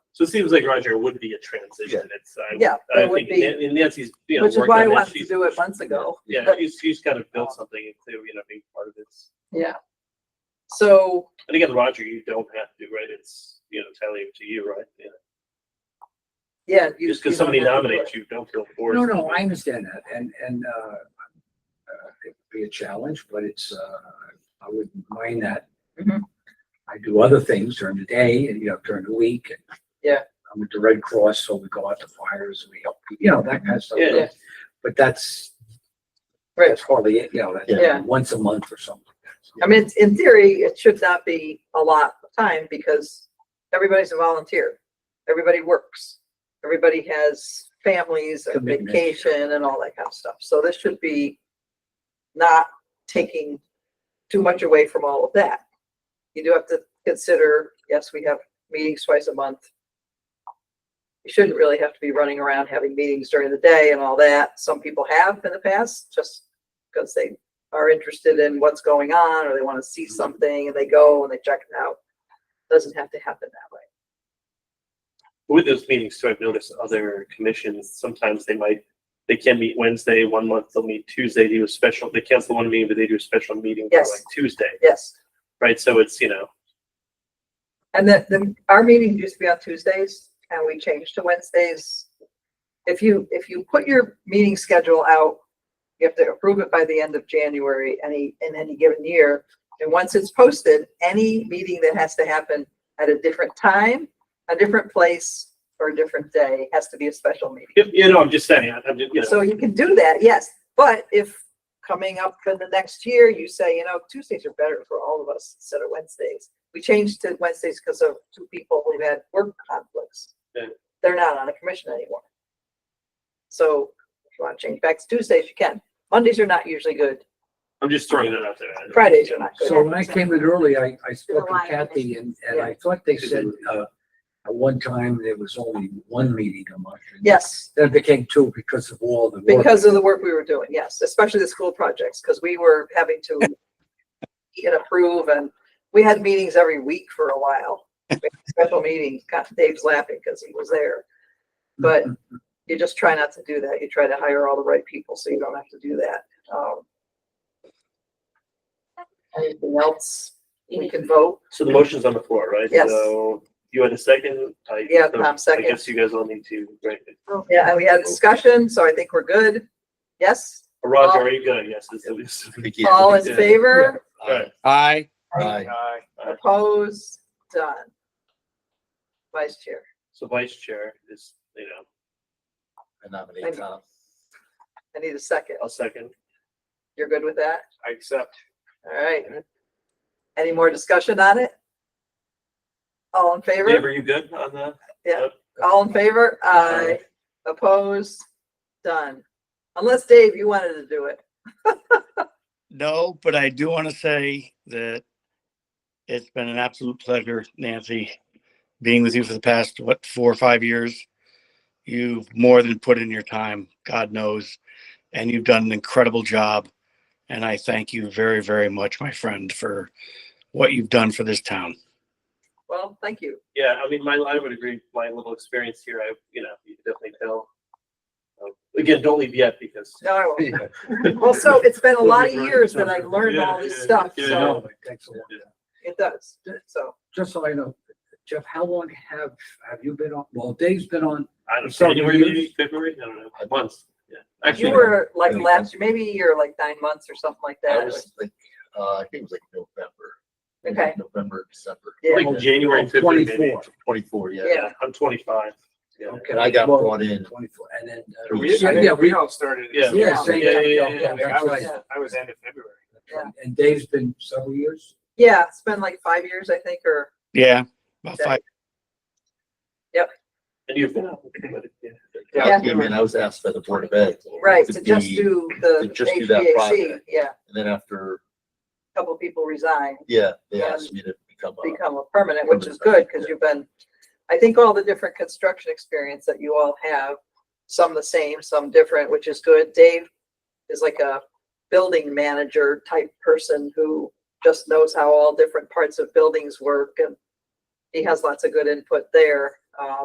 So it seems like Roger would be a transition. It's, I, Yeah, I it would think be. Nan- and Nancy's, you know. Which is worked why I on that. wanted to She's- do it months ago. Yeah, but- she's, she's got to build something into, you know, being part of this. Yeah. So, And again, Roger, you don't have to, right? It's, you know, entirely up to you, right? Yeah. yeah. you- Just you because somebody don't have to do nominates you, don't feel forced. No, to no, it. I understand that and, and, uh, uh, it'd be a challenge, but it's, uh, I wouldn't mind that. Mhm. I do other things during the day and, you know, during the week. and Yeah. I'm with the Red Cross, so we go out to fires, we help, you know, that kind of stuff. Yeah. Yeah. But that's, Right. that's hardly, it, you know, Yeah. that's once a month or something. like I that. mean, it's- in theory, it should not be a lot of time because everybody's a volunteer. Everybody works. Everybody has families and Commitments. vacation and all that kind of stuff. So this should be not taking too much away from all of that. You do have to consider, yes, we have meetings twice a month. You shouldn't really have to be running around having meetings during the day and all that. Some people have in the past, just because they are interested in what's going on or they want to see something and they go and they check it out. Doesn't have to happen that way. With those meetings, so I've noticed other commissions, sometimes they might, they can meet Wednesday, one month they'll meet Tuesday, they do a special, they cancel one meeting, but they do a special meeting for Yes. like Tuesday, Yes. right? So it's, you know, And then the, our meeting used to be on Tuesdays and we changed to Wednesdays. If you, if you put your meeting schedule out, you have to approve it by the end of January, any, in any given year. And once it's posted, any meeting that has to happen at a different time, a different place, or a different day has to be a special meeting. if, you know, I'm just saying, I'm just, you know. So you can do that, yes, but if coming up in the next year, you say, you know, Tuesdays are better for all of us instead of Wednesdays. We changed to Wednesdays because of two people who had work conflicts. Yeah. They're not on a commission anymore. So if you want to change back to Tuesdays, you can. Mondays are not usually good. I'm just throwing that out there. Fridays are not good. So when I came in early, I, I spoke to July, Kathy and, and I thought they said, uh, at one time there was only one meeting a month. and Yes, Then it became two because of all the work. because of the work we were doing, yes, especially the school projects, because we were having to and approve and we had meetings every week for a while. We had Special meetings, God, Dave's laughing because he was there. But you just try not to do that. You try to hire all the right people so you don't have to do that. Um, Anything else? We can vote. So the motion's on the floor, right? Yes. So you had a second? I- Yeah, Tom, second. I guess you guys all need to, right? Yeah, and we had a discussion, so I think we're good. Yes, Uh, Roger, are you good? Yes, this is. all in Yeah. favor, All right. Aye. Aye. Aye. opposed, done. Vice Chair. So vice chair is, you know, I nominate Tom. I need a second. I'll second. You're good with that? I accept. All right. Any more discussion on it? All in Dave, favor? are you good on that? All in favor? Aye. Opposed? Done. Unless Dave, you wanted to do it. No, but I do want to say that it's been an absolute pleasure, Nancy, being with you for the past, what, four or five years. You've more than put in your time, God knows, and you've done an incredible job. And I thank you very, very much, my friend, for what you've done for this town. Well, thank you. Yeah, I mean, my, I would agree, my little experience here, I, you know, you can definitely tell. Um, Again, don't leave yet because. No, I won't. Well, so it's been a lot of years that I learned all Yeah, this yeah, stuff, yeah, so No, it takes a long time. it does. So Just so I know, Jeff, how long have, have you been on? Well, Dave's been on, I don't know, Several January, years. maybe, February, I don't know, months, yeah. you Actually, were like Really? last, maybe you're like nine months or something like I that. was like, uh, I think it was like November. maybe Okay. November, December, Yeah, like January, February, maybe. 24. twenty-four, yeah. yeah. Yeah, I'm twenty-five. Yeah. Okay. And I got Well, brought in. 24, and then. uh, Two We, weeks. yeah, I Yeah, think we we, all started. at the Yeah. same yeah, time. same Yeah, time, yeah, yeah, yeah, yeah. yeah, that's right. Yeah. I was end of February. Yeah. And Dave's been several years? Yeah, it's been like five years, I think, or Yeah, about five. And you've been out. Yeah. I came in, I was asked by the Board of Ed. Right, to to just be- do the to just do that HVAC, project. yeah, And then after, a couple people resign, yeah, they Yeah. asked me to become a. become a permanent, which is good, because you've been, I think all the different construction experience that you all have, some the same, some different, which is good. Dave is like a building manager type person who just knows how all different parts of buildings work, and he has lots of good input there. Um,